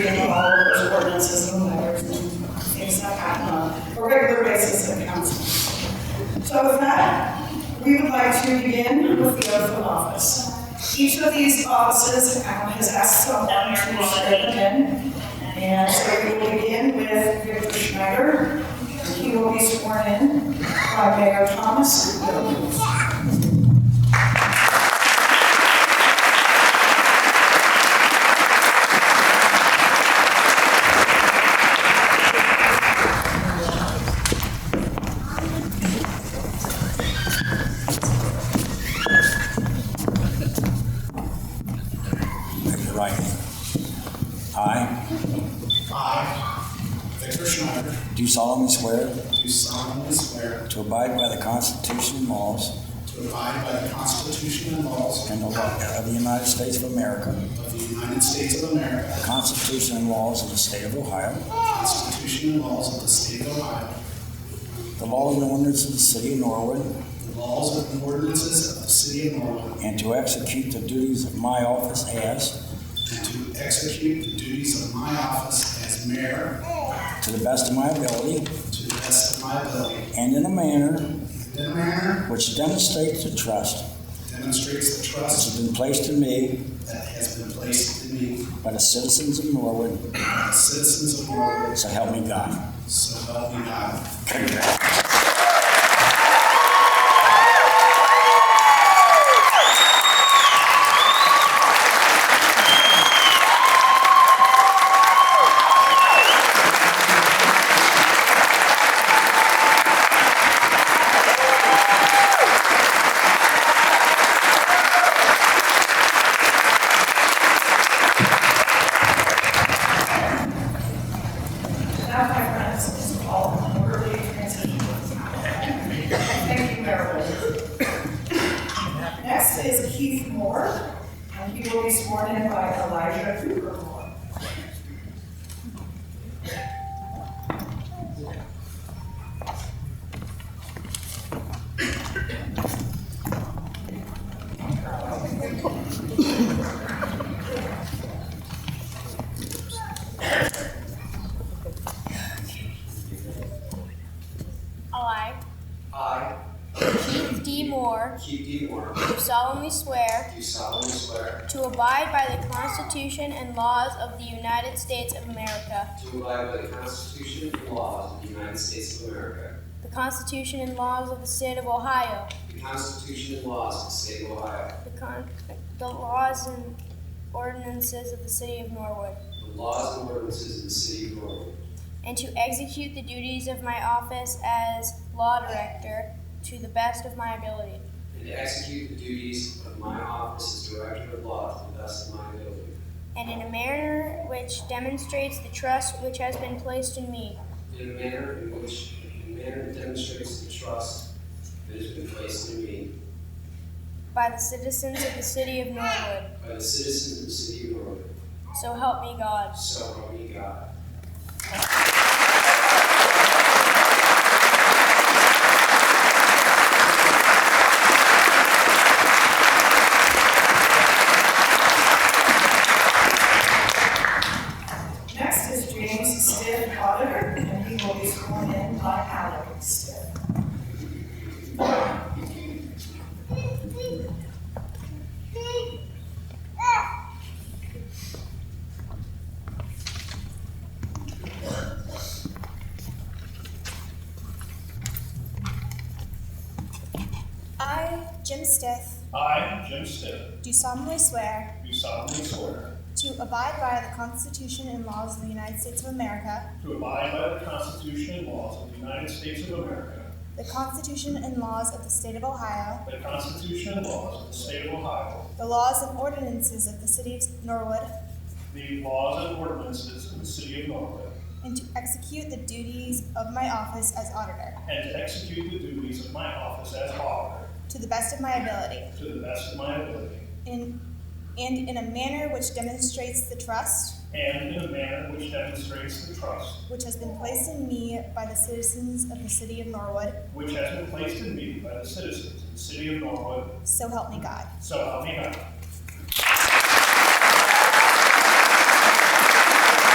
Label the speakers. Speaker 1: reading all of those ordinances and letters and things that happen on a regular basis at council. So with that, we would like to begin with the oath of office. Each of these offices um, has asked someone to say again. And so we will begin with Victor Schneider. He will be sworn in by Mayor Thomas Williams.
Speaker 2: Raise your right hand. I
Speaker 3: I, Victor Schneider,
Speaker 2: do solemnly swear
Speaker 3: do solemnly swear
Speaker 2: to abide by the Constitution and laws
Speaker 3: to abide by the Constitution and laws
Speaker 2: and the law of the United States of America,
Speaker 3: of the United States of America,
Speaker 2: the Constitution and laws of the State of Ohio,
Speaker 3: the Constitution and laws of the State of Ohio,
Speaker 2: the laws and ordinances of the City of Norwood,
Speaker 3: the laws and ordinances of the City of Norwood,
Speaker 2: and to execute the duties of my office as,
Speaker 3: and to execute the duties of my office as mayor
Speaker 2: to the best of my ability
Speaker 3: to the best of my ability,
Speaker 2: and in a manner
Speaker 3: and in a manner
Speaker 2: which demonstrates the trust
Speaker 3: that demonstrates the
Speaker 2: which
Speaker 3: trust
Speaker 2: has been placed in me
Speaker 3: that has been placed in me
Speaker 2: by the citizens of Norwood,
Speaker 3: by the citizens of Norwood,
Speaker 2: so help me God.
Speaker 3: so help me God.
Speaker 1: Now, my friends, this is all an orderly transition to the town. Thank you, Mayor Wood. Next is Keith Moore, and he will be sworn in by Elijah Cooper Moore.
Speaker 4: I,
Speaker 5: I,
Speaker 4: Keith D. Moore,
Speaker 5: Keith D. Warren,
Speaker 4: do solemnly swear
Speaker 5: do solemnly swear
Speaker 4: to abide by the Constitution and laws of the United States of America,
Speaker 5: to abide by the Constitution and laws of the United States of America,
Speaker 4: the Constitution and laws of the State of Ohio,
Speaker 5: the Constitution and laws of the State of Ohio,
Speaker 4: the, con- the laws and ordinances of the City of Norwood,
Speaker 5: the laws and ordinances of the City of Norwood,
Speaker 4: and to execute the duties of my office as Law Director to the best of my ability.
Speaker 5: and to execute the duties of my office as Director of Law to the best of my ability,
Speaker 4: And in a manner which demonstrates the trust which has been placed in me
Speaker 5: in a manner in which, in a manner that demonstrates the trust that has been placed in me
Speaker 4: by the citizens of the City of Norwood.
Speaker 5: by the citizens of the City of Norwood,
Speaker 4: So help me God.
Speaker 5: so help me God.
Speaker 1: Next is James Stitt, Auditor, and he will be sworn in by Alec Stitt.
Speaker 6: I, Jim Stith,
Speaker 7: I, Jim Stitt,
Speaker 6: do solemnly swear
Speaker 7: do solemnly swear
Speaker 6: to abide by the Constitution and laws of the United States of America,
Speaker 7: to abide by the Constitution and laws of the United States of America,
Speaker 6: the Constitution and laws of the State of Ohio,
Speaker 7: the Constitution and laws of the State of Ohio,
Speaker 6: the laws and ordinances of the City of Norwood,
Speaker 7: the laws and ordinances of the City of Norwood,
Speaker 6: and to execute the duties of my office as auditor
Speaker 7: and to execute the duties of my office as auditor
Speaker 6: to the best of my ability,
Speaker 7: to the best of my ability,
Speaker 6: in, and in a manner which demonstrates the trust
Speaker 7: and in a manner which demonstrates the trust
Speaker 6: which has been placed in me by the citizens of the City of Norwood.
Speaker 7: which has been placed in me by the citizens of the City of Norwood,
Speaker 6: So help me God.
Speaker 7: so help me God.